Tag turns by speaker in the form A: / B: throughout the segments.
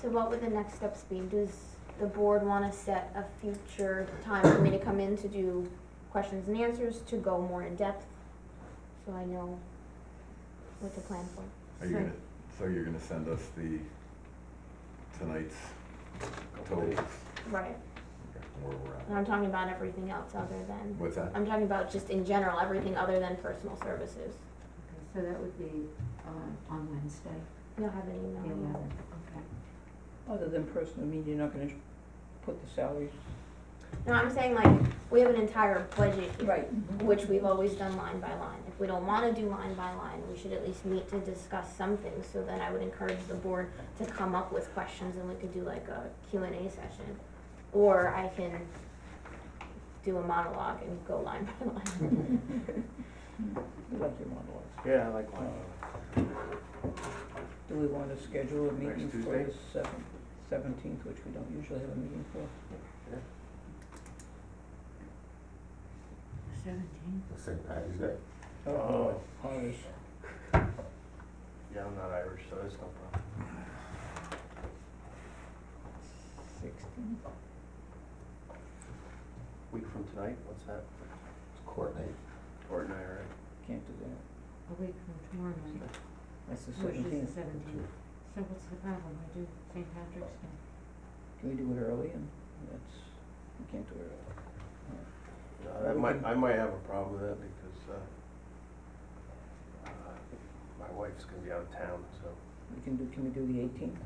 A: So what would the next steps be? Does the board wanna set a future time for me to come in to do questions and answers, to go more in depth? So I know what to plan for.
B: Are you gonna, so you're gonna send us the tonight's totals?
A: Right.
B: Okay, Where
A: And
B: we're at?
A: I'm talking about everything else other than,
B: What's that?
A: I'm talking about just in general, everything other than personal services.
C: Okay, So that would be, uh, on Wednesday,
A: You'll have an
C: the
A: email.
C: eleventh, okay.
D: Other than personal, I mean, you're not gonna put the salaries.
A: No, I'm saying like, we have an entire budget here.
D: Right.
A: which we've always done line by line. If we don't wanna do line by line, we should at least meet to discuss something, so then I would encourage the board to come up with questions and we could do like a Q and A session. Or I can do a monologue and go line by line.
D: Like your monologues.
E: Yeah, I like one.
D: Do we wanna schedule a meeting
E: Next
D: for the
E: Tuesday?
D: seventh, seventeenth, which we don't usually have a meeting for?
C: Seventeen.
F: St. Patty's Day.
E: Oh.
D: boy, Irish.
E: Yeah, I'm not Irish, so that's no problem.
D: Sixteen.
E: Week from tonight, what's that?
F: It's court night.
E: Or an IRA?
D: Can't do that.
C: A week from tomorrow night,
D: That's the
C: which is the
D: seventeenth.
C: seventeenth. So what's the problem? I do St. Patrick's Day.
D: Can we do it early and that's, we can't do it early.
E: No, Uh, That might, I might have a problem with that because, uh, uh, my wife's gonna be out of town, so.
D: We can do, can we do the eighteenth?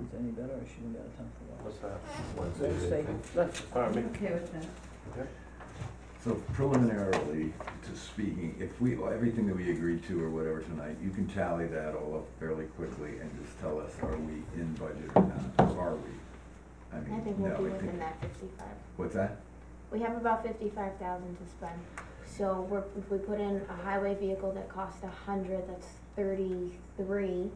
D: Is that any better or should we be out of town for a while?
E: What's that?
F: Wednesday. the
D: Wednesday,
F: 18th.
D: let's,
E: Pardon me?
C: I'm okay with that.
B: So preliminarily, to speaking, if we, everything that we agreed to or whatever tonight, you can tally that all up fairly quickly and just tell us, are we in budget or not? Are we? I
A: I
B: mean,
A: think
B: no,
A: we'll be
B: I think,
A: within that fifty-five.
B: what's that?
A: We have about fifty-five thousand to spend. So we're, if we put in a highway vehicle that costs a hundred, that's thirty-three.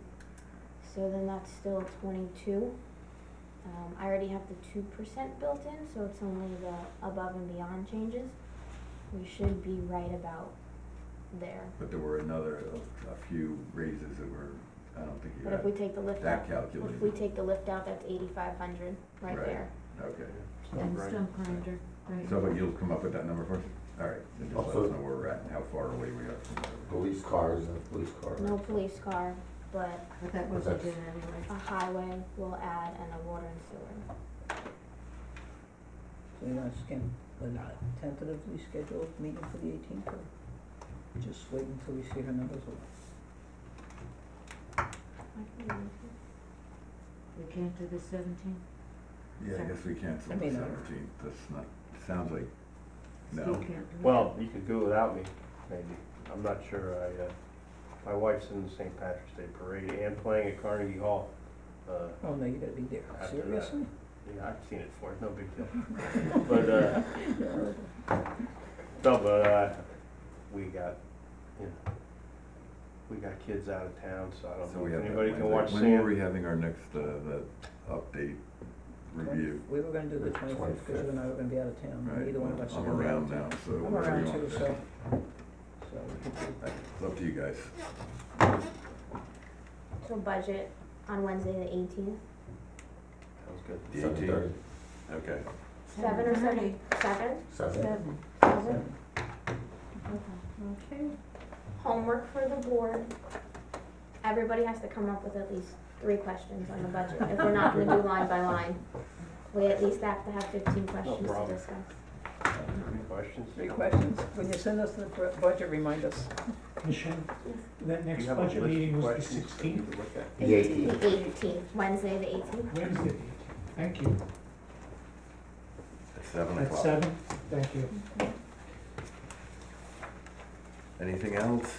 A: So then that's still twenty-two. Um, I already have the two percent built in, so it's only the above and beyond changes. We should be right about there.
B: But there were another, a- a few raises that were, I don't think you
A: But if we
B: had
A: take the lift
B: that
A: out,
B: calculated.
A: if we take the lift out, that's eighty-five hundred right
B: Right.
A: there.
B: Okay,
C: And
E: Right.
C: stump grinder, right?
B: so but you'll come up with that number for us? All right, then just let us
F: Also-
B: know where we're at and how far away we are from where
F: Police cars and a police car.
A: No police car, but
C: But that wasn't
F: That's-
C: good anyway.
A: a highway will add and a water and sewer.
D: So you want to scan, a tentatively scheduled meeting for the eighteenth, or just wait until we see her numbers? or-
A: I can leave it.
C: We can't do the seventeenth?
B: Yeah, I
C: Sure.
B: guess we
D: I
B: canceled the
D: mean, uh,
B: seventeenth, that's not, sounds like,
C: Still
B: no,
C: can't do it?
E: Well, you could do without me, maybe. I'm not sure. I, uh, my wife's in the St. Patrick's Day Parade and playing at Carnegie Hall. Uh,
D: Oh, no, you gotta be there,
E: After that.
D: seriously?
E: yeah, I've seen it before, it's no big deal. But, uh, No, but, uh, we got, you know, we got kids out of town, so I don't
B: so we
E: know
B: have
E: if
B: that
E: anybody can watch
B: Wednesday. When were
E: Sam.
B: we having our next, uh, the update review?
D: We were gonna do the
F: The
D: twenty-fifth, because you and I were gonna be out of town,
B: Right,
D: neither one of us are
B: I'm
D: gonna be out
B: around
D: of
B: now,
D: town.
B: so whatever you
D: I'm around
B: want.
D: too, so, so we could do,
B: It's up to you guys.
A: So budget on Wednesday the eighteenth,
E: Sounds good.
B: The
F: Seven
B: 18th.
F: thirty.
B: Okay.
A: seven or
C: Seven
A: seven, seven,
F: Seven.
C: Seven,
A: seven.
C: okay.
A: Homework for the board. Everybody has to come up with at least three questions on the budget, if we're not gonna do line by line. We at least have to have fifteen questions to
E: problem.
A: discuss.
E: Any questions?
D: three questions, when you send us the br- budget, remind us.
G: Commission, that
E: Do
G: next
E: you have a
G: budget
E: list of
G: meeting was the
E: questions that you
G: sixteenth,
E: could look at?
F: The eighteenth.
A: The eighteenth, Wednesday the eighteenth.
G: Wednesday, thank you,
B: At seven
G: at
B: o'clock.
G: seven, thank you.
B: Anything else?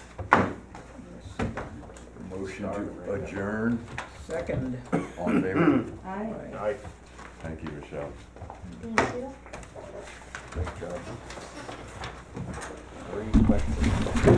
B: Motion
E: Starting
B: to
E: right now.
B: adjourn,
D: Second,
B: all in favor?
C: I.
D: Right.
E: I
B: Thank you, Michelle.
A: Thank you.
E: Great job. Three questions.